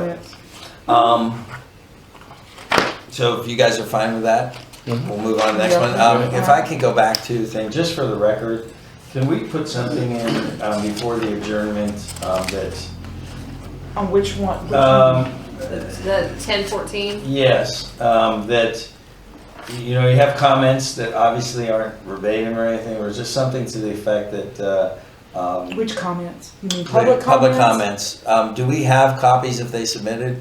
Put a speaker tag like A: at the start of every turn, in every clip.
A: Yes.
B: Um, so if you guys are fine with that, we'll move on to the next one. Um, if I can go back to the thing, just for the record, can we put something in, um, before the adjournment, um, that,
A: On which one? which
B: um,
C: The ten fourteen?
B: yes, um, that, you know, you have comments that obviously aren't verbatim or anything, or just something to the effect that, uh,
A: one?
B: um.
A: Which comments? You mean public comments?
B: Public comments. Um, do we have copies if they submitted?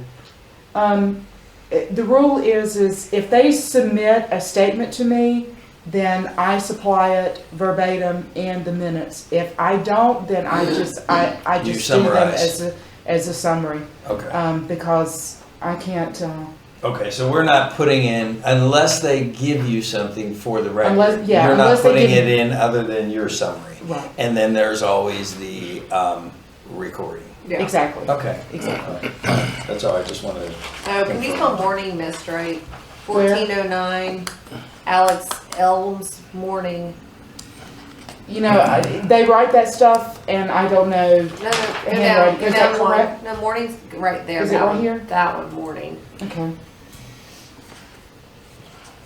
A: Um, it- the rule is, is if they submit a statement to me, then I supply it verbatim in the minutes. If I don't, then I just, I, I
B: You
A: just do them
B: summarize.
A: as a, as a summary,
B: Okay.
A: um, because I can't, uh,
B: Okay, so we're not putting in, unless they give you something for the record.
A: Unless- yeah,
B: You're not
A: unless they
B: putting
A: give-
B: it in other than your summary.
A: right,
B: And then there's always the um, recording.
A: exactly.
B: Okay.
A: Exactly.
B: All right, all right. That's all, I just wanted to.
C: Oh, can you spell morning mist right?
A: Where?
C: Fourteen oh nine, Alex Elms Morning.
A: You know, I- they write that stuff and I don't know,
C: No, no, go
A: Handwriting.
C: down, go
A: Is that
C: down one.
A: correct?
C: No, morning's right there.
A: Is it
C: that
A: right
C: one.
A: here?
C: That one, morning.
A: okay,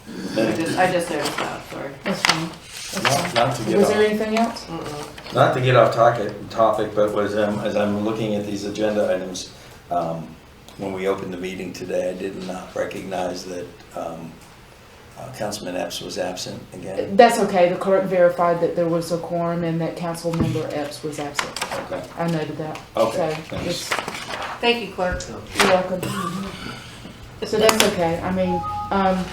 C: I just, I just noticed that, sorry.
A: that's fine. That's
B: Not
A: fine.
B: not to get
A: Was there
B: off,
A: anything else?
C: Mm-mm.
B: not to get off topic, topic, but was, um, as I'm looking at these agenda items, um, when we opened the meeting today, I did not recognize that um, uh, Councilman Epps was absent again.
A: That's okay, the clerk verified that there was a quorum and that council member Epps was absent.
B: Okay.
A: I noted that.
B: Okay,
A: So
B: thanks.
A: it's-
C: Thank you, clerk.
A: You're welcome. So that's okay, I mean, um,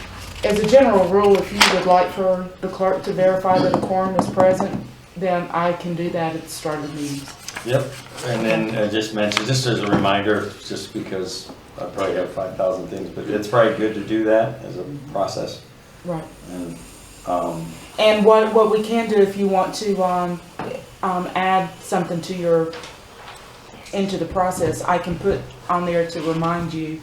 A: as a general rule, if you would like for the clerk to verify that a quorum is present, then I can do that at the start of the meeting.
B: Yep, and then I just mentioned, just as a reminder, just because I probably have five thousand things, but it's probably good to do that as a process.
A: Right.
B: And, um,
A: And what, what we can do if you want to, um, um, add something to your, into the process, I can put on there to remind you,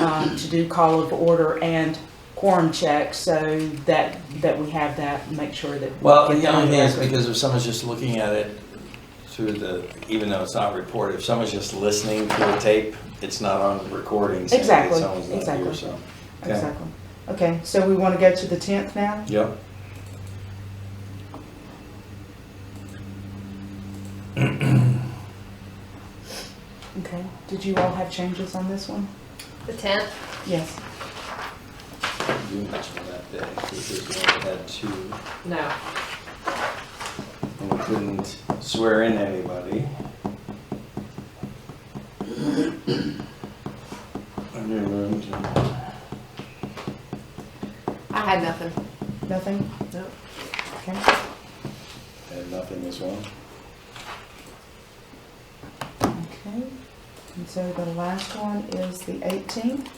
A: um, to do call of order and quorum check, so that, that we have that, make sure that. we
B: Well,
A: get
B: the
A: that on
B: only thing is
A: record.
B: because if someone's just looking at it through the, even though it's not reported, if someone's just listening to a tape, it's not on the recording saying that
A: Exactly,
B: someone's not here,
A: exactly.
B: so. okay.
A: Exactly. Okay, so we want to go to the tenth now?
B: Yep.
A: Okay. Did you all have changes on this one?
C: The tenth,
A: Yes.
B: You mentioned that day, because we only had two,
C: no.
B: and we couldn't swear in anybody. I knew room to-
C: I had nothing.
A: Nothing?
C: No.
A: Okay.
B: And nothing as well.
A: Okay. And so the last one is the eighteenth.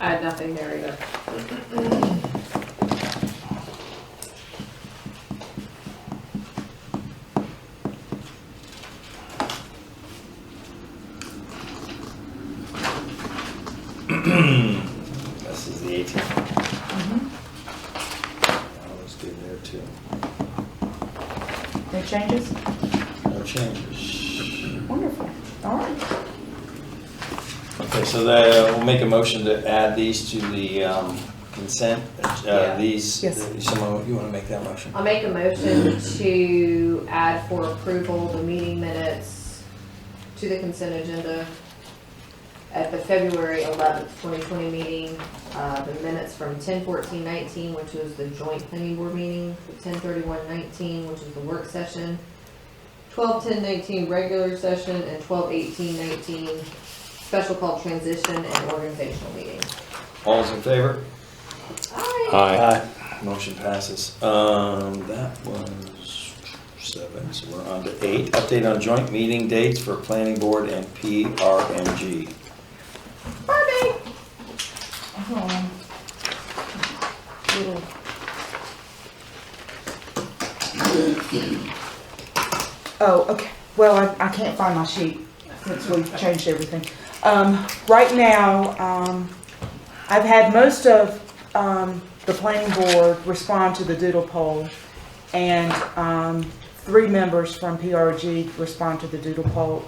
C: I had nothing there either.
B: This is the 18th. Mm-hmm. All those good there too.
A: No changes?
B: No changes.
A: Wonderful. All right.
B: Okay, so that, uh, we'll make a motion to add these to the um, consent, uh,
C: Yeah.
B: these, uh,
A: Yes.
B: someone, you want to make that motion?
C: I'll make a motion to add for approval the meeting minutes to the consent agenda at the February eleventh, twenty twenty meeting, uh, the minutes from ten fourteen nineteen, which was the joint planning board meeting, ten thirty-one nineteen, which is the work session, twelve ten nineteen regular session, and twelve eighteen nineteen special called transition and organizational meeting.
B: All's in favor?
C: Aye.
D: Aye.
B: Motion passes. Um, That was seven, so we're on to eight. Update on joint meeting dates for planning board and PRMG.
C: Barbie.
A: Um, little- Oh, okay. Well, I, I can't find my sheet since we've changed everything. Um, right now, um, I've had most of, um, the planning board respond to the doodle poll. And, um, three members from PRG respond to the doodle poll